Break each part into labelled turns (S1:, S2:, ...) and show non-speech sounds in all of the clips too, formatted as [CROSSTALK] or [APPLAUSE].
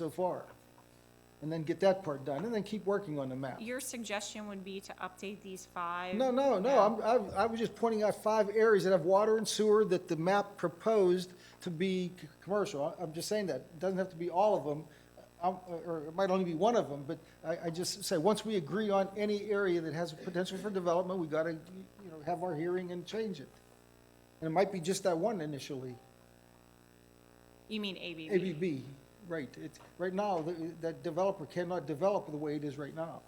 S1: so far. And then get that part done, and then keep working on the map.
S2: Your suggestion would be to update these five?
S1: No, no, no, I'm, I've- I was just pointing out five areas that have water and sewer that the map proposed to be c- commercial. I- I'm just saying that, it doesn't have to be all of them, I'm- or it might only be one of them, but I, I just say, once we agree on any area that has potential for development, we gotta, you know, have our hearing and change it. And it might be just that one initially,
S2: You mean ABB?
S1: ABB, right, it's, right now, th- that developer cannot develop the way it is right now.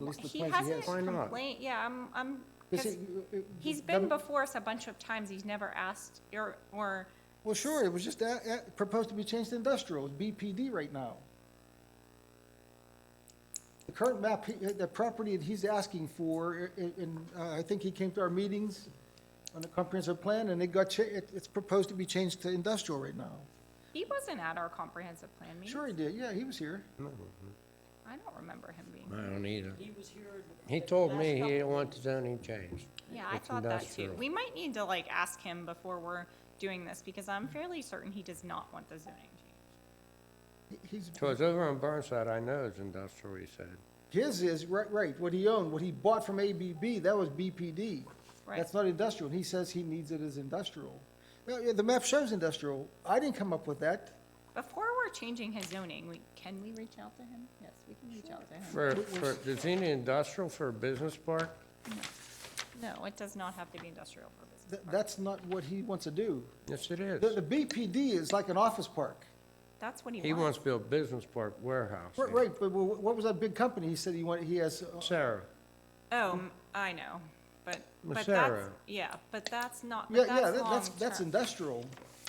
S1: At least the
S2: He
S1: plans he
S2: hasn't
S1: has.
S3: Why not?
S2: complained, yeah, I'm, I'm,
S1: Because
S2: 'cause
S1: it- it-
S2: he's
S1: them-
S2: been before us a bunch of times, he's never asked, or, or,
S1: Well, sure, it was just a- a- proposed to be changed to industrial, it's BPD right now. The current map, he- the property that he's asking for, i- i- and uh, I think he came to our meetings on the comprehensive plan, and it got, cha- it- it's proposed to be changed to industrial right now.
S2: he wasn't at our comprehensive plan meeting.
S1: Sure he did, yeah, he was here.
S2: I don't remember him being,
S3: I don't either.
S4: He was here.
S3: He told me he wants zoning change.
S2: yeah, I
S3: It's
S2: thought that too.
S3: industrial.
S2: We might need to like ask him before we're doing this, because I'm fairly certain he does not want the zoning change.
S1: He- He's,
S3: So it's over on Burnside, I know it's industrial, he said.
S1: his is, right, right, what he owned, what he bought from ABB, that was BPD.
S2: Right,
S1: That's not industrial, and he says he needs it as industrial. Well, yeah, The map shows industrial, I didn't come up with that.
S2: before we're changing his zoning, we, can we reach out to him? Yes, we can reach out to him.
S3: For, for, does he need industrial for a business park?
S2: No, it does not have to be industrial purposes.
S1: Th- That's not what he wants to do.
S3: Yes, it
S1: The, the
S3: is.
S1: BPD is like an office park.
S2: That's what
S3: He wants to build business park warehouse.
S1: Right, right, but wha- what was that big company he said he wanted, he has, uh,
S3: Sarah,
S2: Oh, m- I know, but,
S3: Well,
S2: but that's,
S3: Sarah.
S2: yeah, but that's not,
S1: yeah,
S2: but
S1: yeah,
S2: that's
S1: that- that's, that's
S2: long-term.
S1: industrial.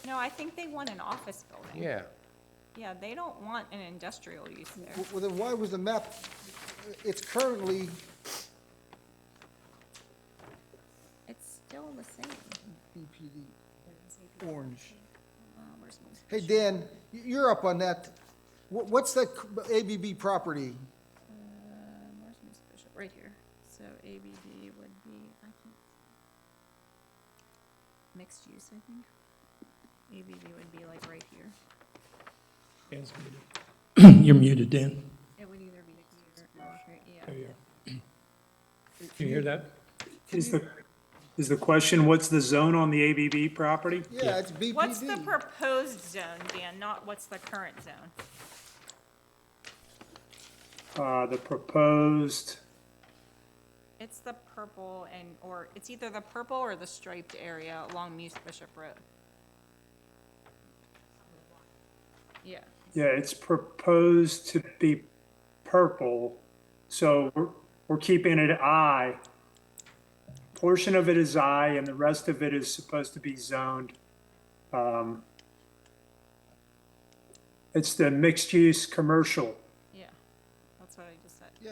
S2: No, I think they want an office building.
S3: yeah.
S2: Yeah, they don't want an industrial use there.
S1: Well, then why was the map, it's currently,
S2: It's still the same.
S1: BPD, orange.
S2: Uh,
S1: Hey, Dan, y- you're up on that. Wha- What's that c- ABB property?
S2: Where's my special, right here. So ABD would be, I think, mixed use, I think. ABD would be like right here.
S5: Dan's muted. [CLEARS THROAT] You're muted, Dan.
S2: It would either be here or here,
S5: There
S2: yeah.
S5: you are. Can you hear that?
S6: Is the, is the question, what's the zone on the ABB property?
S1: Yeah, it's BPD.
S2: What's the proposed zone, Dan, not what's the current zone?
S6: Uh, the proposed,
S2: It's the purple and, or, it's either the purple or the striped area along Muse Bishop Road. Yeah,
S6: yeah, it's proposed to be purple, so we're, we're keeping it I. Portion of it is I and the rest of it is supposed to be zoned. Um, It's the mixed-use commercial.
S2: yeah, that's what I just said.
S1: Yeah,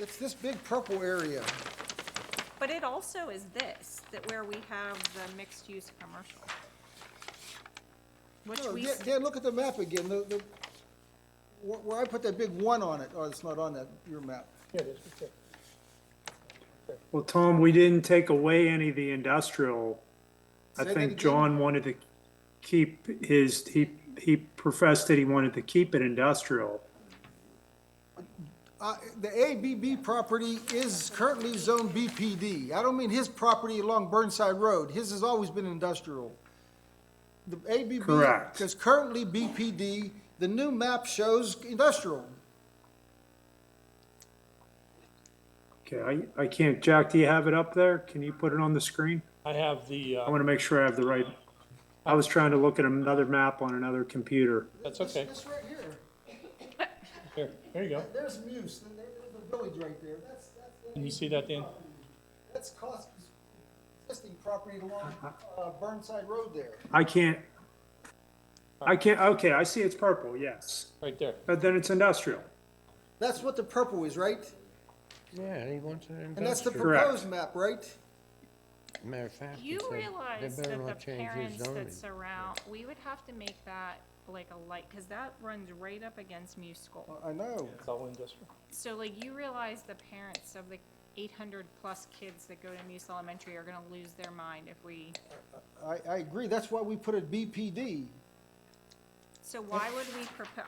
S1: it's this big purple area.
S2: But it also is this, that where we have the mixed-use commercial. Which
S1: No,
S2: we,
S1: Dan,
S2: s-
S1: Dan, look at the map again, the, the, where- where I put that big one on it, oh, it's not on that, your map.
S6: Well, Tom, we didn't take away any of the industrial. I
S1: Say that
S6: think
S1: again.
S6: John wanted to keep his, he, he professed that he wanted to keep it industrial.
S1: Uh, the ABB property is currently zoned BPD. I don't mean his property along Burnside Road, his has always been industrial. The ABB.
S6: Correct.
S1: Because currently BPD, the new map shows industrial.
S6: Okay, I, I can't, Jack, do you have it up there? Can you put it on the screen?
S5: I have the,
S6: I
S5: uh,
S6: want to make sure I have the right, I was trying to look at another map on another computer.
S5: that's okay.
S1: This right here,
S5: Here, there you go.
S1: there's Muse, and there- there's the village right there, that's, that's.
S5: Can you see that, Dan?
S1: That's Costco's existing property along, uh, Burnside Road there.
S6: I can't, I can't, okay, I see it's purple, yes.
S5: Right there.
S6: But then it's industrial.
S1: That's what the purple is, right?
S3: Yeah, he wants an
S1: And that's the
S3: industrial.
S6: Correct.
S1: proposed map, right?
S3: Matter of fact, he
S2: you
S3: said
S2: realize
S3: they better
S2: that the
S3: not change
S2: parents
S3: his zoning.
S2: that surround, we would have to make that like a light, because that runs right up against Muse School.
S1: I know.
S5: It's all industrial.
S2: So like you realize the parents of the eight hundred plus kids that go to Muse Elementary are gonna lose their mind if we,
S1: I, I agree, that's why we put it BPD.
S2: so why would we propose,